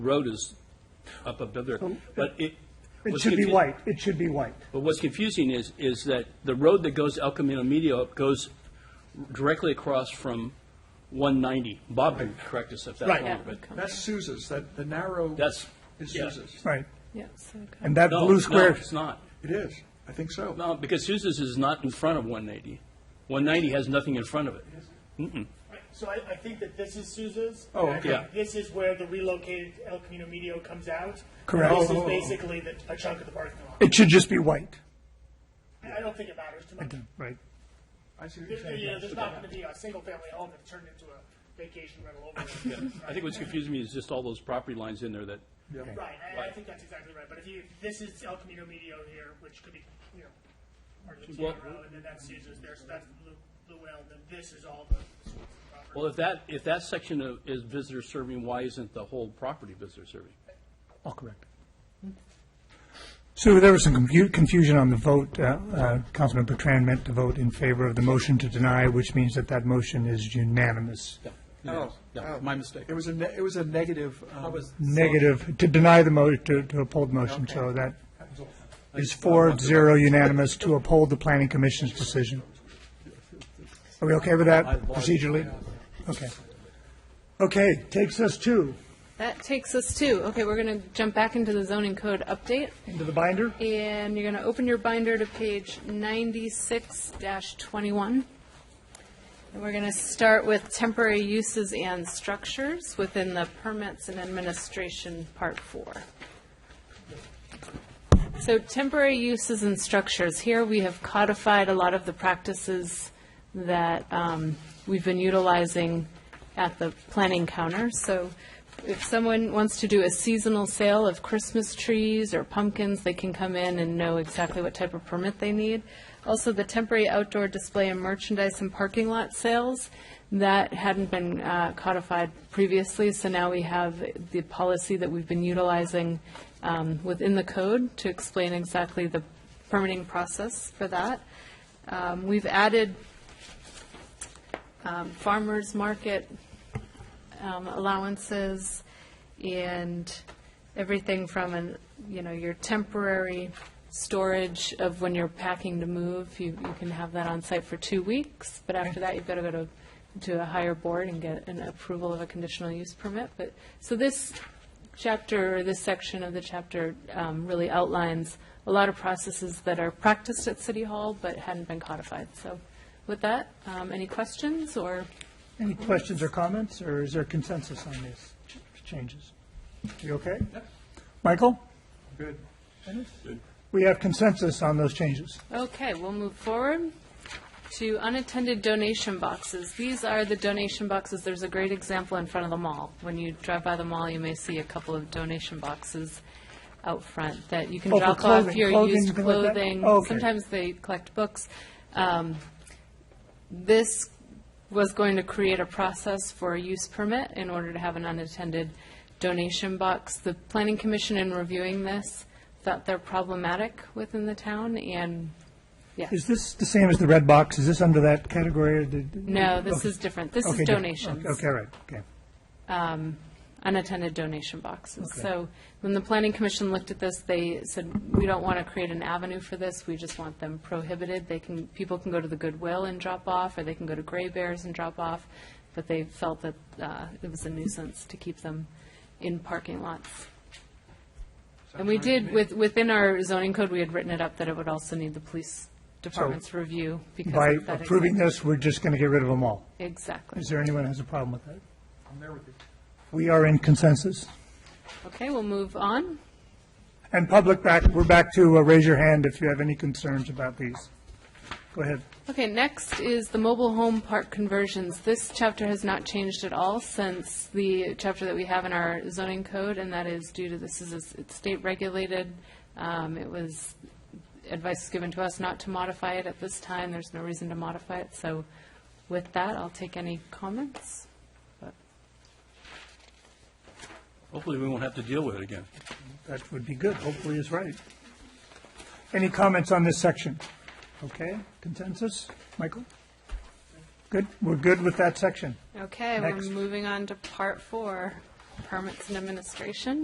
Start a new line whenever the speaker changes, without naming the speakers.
road is up above there, but it.
It
what's
should be
confu-
white, it should be white.
But what's confusing is, is that the road that goes to El Camino Medio goes directly across from 190. Bob can correct us if that's
Right.
wrong, but
That's Sousa's, that, the narrow
That's-
is
yeah.
Sousa's.
Right.
Yeah, so kind
And that
no,
blue
no,
square,
it's not.
It is, I think so.
No, because Sousa's is not in front of 190. 190 has nothing in front of it.
Right, So I, I think that this is Souza's.
Oh,
and I think
okay.
This is where the relocated El Camino Medio comes out.
Correct.
This is
Oh, oh, oh.
basically the, a chunk of the parking lot.
it should just be white.
I don't think it matters too much.
Right.
I see what you're
There-
saying.
you know, there's not gonna be a single-family home that's turned into a vacation rental over.
I think what's confusing me is just all those property lines in there that,
Right, I, I think that's exactly right, but if you, this is El Camino Medio here, which could be, you know, part of the
Well-
Camino, and then that's Souza's there, so that's Lu- Luell, then this is all the Souza's property.
well, if that, if that section of- is visitor serving, why isn't the whole property visitor serving?
All correct. So there was some confu- confusion on the vote. Uh, uh, Councilman Bertrand meant to vote in favor of the motion to deny, which means that that motion is unanimous.
Oh,
Yeah,
oh.
my mistake.
It was a, ne- it was a negative, um,
Negative, to deny the mo, to, to uphold the motion, so that is four, zero unanimous to uphold the planning commission's decision. Are we okay with that procedurally? Okay. Okay, takes us to,
That takes us to, okay, we're going to jump back into the zoning code update,
into the binder?
and you're going to open your binder to page 96-21. And we're going to start with temporary uses and structures within the permits and administration, part four. So temporary uses and structures, here we have codified a lot of the practices that um, we've been utilizing at the planning counter. So if someone wants to do a seasonal sale of Christmas trees or pumpkins, they can come in and know exactly what type of permit they need. Also, the temporary outdoor display and merchandise and parking lot sales, that hadn't been uh, codified previously, so now we have the policy that we've been utilizing um, within the code to explain exactly the permitting process for that. Um, We've added um, farmers market um, allowances and everything from, an you know, your temporary storage of when you're packing to move, you you can have that on site for two weeks, but after that, you've got to go to to a higher board and get an approval of a conditional use permit. But, so this chapter, or this section of the chapter um, really outlines a lot of processes that are practiced at City Hall but hadn't been codified. So with that, um, any questions or?
Any questions or comments, or is there consensus on these ch- changes? You okay? Michael?
good.
We have consensus on those changes.
Okay, we'll move forward to unattended donation boxes. These are the donation boxes, there's a great example in front of the mall. When you drive by the mall, you may see a couple of donation boxes out front that you can
Oh, for
drop off
clothing-
your
clothing,
used
things like that? Oh,
clothing.
Okay.
Sometimes they collect books. Um, This was going to create a process for a use permit in order to have an unattended donation box. The planning commission in reviewing this thought they're problematic within the town and
Is this the same as the red box? Is this under that category? or did-
No, this
Okay.
is different. This
Okay,
is
different.
donations,
Okay, all right, okay.
unattended donation boxes.
Okay.
So when the planning commission looked at this, they said, we don't want to create an avenue for this. We just want them prohibited. They can, people can go to the Goodwill and drop off, or they can go to Gray Bears and drop off. But they felt that uh, it was a nuisance to keep them in parking lots. And we did, with, within our zoning code, we had written it up that it would also need the police department's review because
By
of that
approving
exact-
this, we're just going to get rid of them all.
Exactly.
Is there anyone who has a problem with that?
I'm there with you.
We are in consensus.
Okay, we'll move on.
And public back, we're back to uh, raise your hand if you have any concerns about these. Go ahead.
Okay, next is the mobile home park conversions. This chapter has not changed at all since the chapter that we have in our zoning code, and that is due to, this is, a- it's state regulated. Um, It was, advice given to us not to modify it at this time. There's no reason to modify it. So with that, I'll take any comments.
Hopefully, we won't have to deal with it again.
That would be good. Hopefully it's right. Any comments on this section? Okay, consensus? Michael? Good, we're good with that section.
Okay, we're
Next.
moving on to part four. permits and administration.